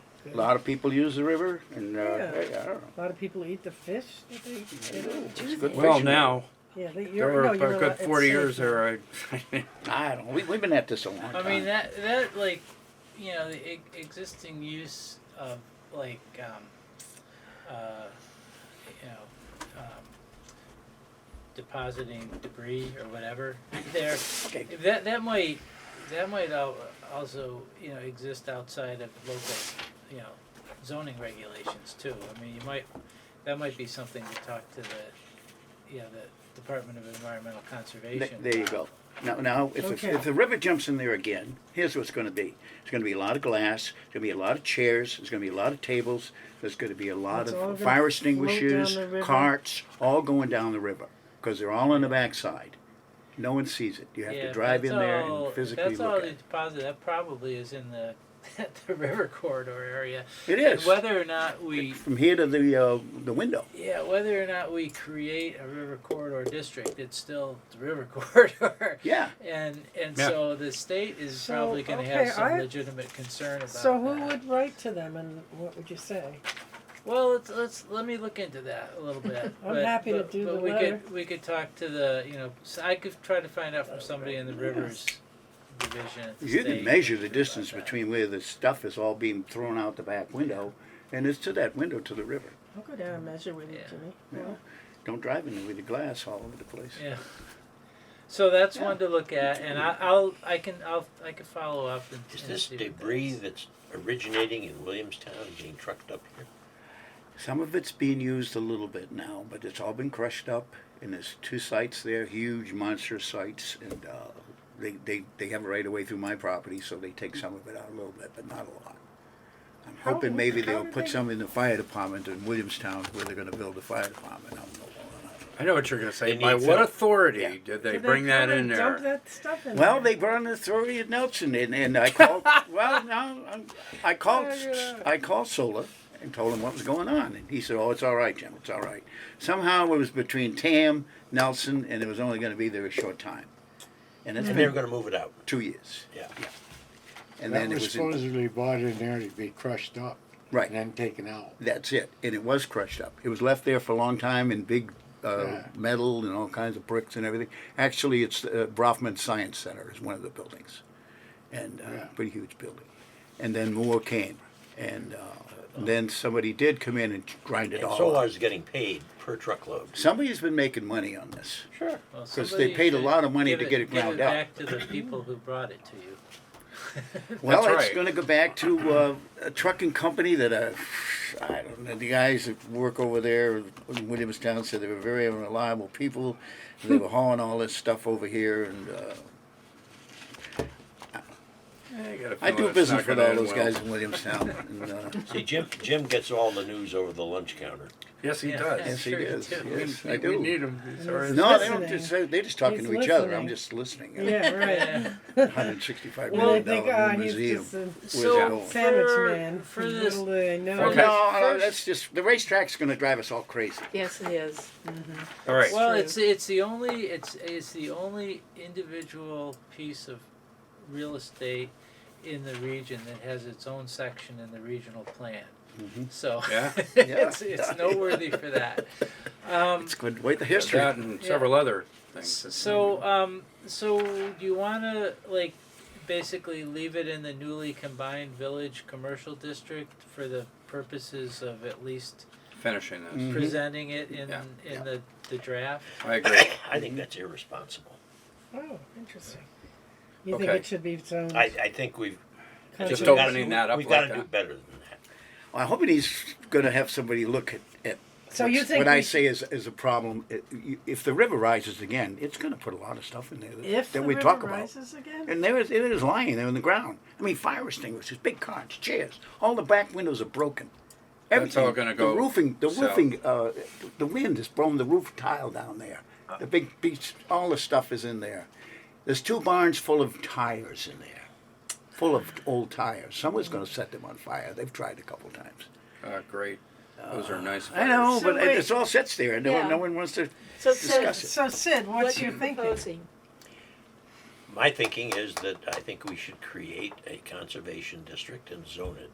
A lot of people use the river, and uh, Yeah. hey, I don't know. A lot of people eat the fish that they, they don't It's do good that. Well, fishing. now, Yeah, they, there you're, were no, a you're good forty years there, I, I don't. We, we've been at this a long time. I mean that that like you know the e- existing use of like um, uh, you know um, depositing debris or whatever there Okay. that that might that might al- also you know exist outside of local you know zoning regulations too. I mean you might that might be something to talk to the you know the Department of Environmental Th- Conservation. there you go. Now, now if, Okay. if, if the river jumps in there again, here's what's going to be. There's going to be a lot of glass. There's going to be a lot of chairs. There's going to be a lot of tables. There's going to be a lot It's all gonna of fire float extinguishers, down the river. carts, all going down the river because they're all on the backside. No one sees it. You have Yeah, to if drive that's in there all- and if physically That's all look the at it. deposit. That probably is in the the river corridor area. It is Whether or not we, from here to the uh, the window. yeah, whether or not we create a river corridor district, it's still the river corridor. Yeah. And and Yeah. so the state is So, probably going to okay, have some I- legitimate concern about So who that. would write to them and what would you say? Well, let's let's let me look into that a little bit. I'm But- happy to but- do but the we letter. Oh, could we could talk to the you know so I could try to find out from somebody in the rivers division. at the You can state measure the about distance that. between where the stuff is all being thrown out the back window, and it's to that window to the river. I'll go down and measure with you, Yeah. Jimmy. Yeah. Don't drive in there with the glass all over the place. Yeah. So that's one Yeah. to look at, and I, I'll I can I'll I can follow up. And, Is and this see what that debris is. that's originating in Williamstown and being trucked up here? Some of it's being used a little bit now, but it's all been crushed up, and there's two sites there, huge monster sites, and uh, they, they, they have a right of way through my property, so they take some of it out a little bit, but not a lot. I'm How- hoping maybe how they'll did put they- some in the fire department in Williamstown where they're gonna build a fire department, I don't know. I know what you're gonna say. They By need what to- authority Yeah. did they Did bring that come in and Dump there? that stuff in Well, there? they brought in the authority at Nelson, and, and I called, well, no, I'm- I called, I called Sola and told him what was going on. And he said, oh, it's all right, Jim, it's all right. Somehow it was between Tam, Nelson, and it was only gonna be there a short time. And it's And they were been gonna move it out, two years. yeah. And That then it was was, in- supposedly bought in there to be crushed up. Right. And then taken out. that's it, and it was crushed up. It was left there for a long time in big uh, Yeah. metal and all kinds of bricks and everything. Actually, it's uh, Brofman Science Center is one of the buildings. and uh, Yeah. pretty huge building. And then more came, and uh, then somebody did come in and grind it And all. Solar's up. getting paid per truckload. Somebody's been making money on this. Sure. Well, 'Cause they somebody paid a should lot of money give to get it ground give out. Back to the people who brought it to you. Well, That's it's right. going to go back to uh, a trucking company that uh, I don't know. The guys that work over there in Williamstown said they were very unreliable people. They were hauling all this stuff over here, and uh, I do business with all those guys in Williamstown. And, uh, See, Jim, Jim gets all the news over the lunch counter. Yes, he Yeah. does. yes, he Sure, is. too. Yes, We- I do. We need him. He's our- He's no, they don't. listening. Just, they're just talking He's to each other. I'm listening. just listening. Yeah, right. Yeah. 165 Well, they million think, dollar ah, new he's museum. just a it So going? sandwich for, man. for this, Little do they know. Okay. No, no, first- that's just the racetrack's going to drive us all crazy. Yes, it is. All right. well, true. it's it's the only it's it's the only individual piece of real estate in the region that has its own section in the regional plan. Mm-hmm. So Yeah. it's it's noteworthy for that. Um, It's going to wait the history. That and Yeah. several other things. So, um, so do you want to like basically leave it in the newly combined village commercial district for the purposes of at least Finishing Mm. this. presenting it in Yeah, in yeah. the the draft? I agree. I think that's irresponsible. Oh, interesting. You think Okay. it should be its own? I, I think we've. Just we've gotta- opening that up We've like gotta do that. better than that. I hope he's going to have somebody look at, at So what's- you think what we I sh- say is, is a problem. It- you- If the river rises again, it's going to put a lot of stuff in there that, If that the we river talk about. rises again? And there is, it is lying there on the ground. I mean, fire extinguishers, big carts, chairs. All the back windows are broken. That's all gonna go The roofing, the south. roofing, uh, the wind has blown the roof tile down there. The big beach, all the stuff is in there. There's two barns full of tires in there, full of old tires. Someone's going to set them on fire. They've tried a couple times. Uh, great. Those are nice. I know, So but wait. it's all sits there, and no, one- Yeah. no one wants to. So Discuss Sid, it. So Sid, what what's you your thinking? proposing? My thinking is that I think we should create a conservation district and zone it.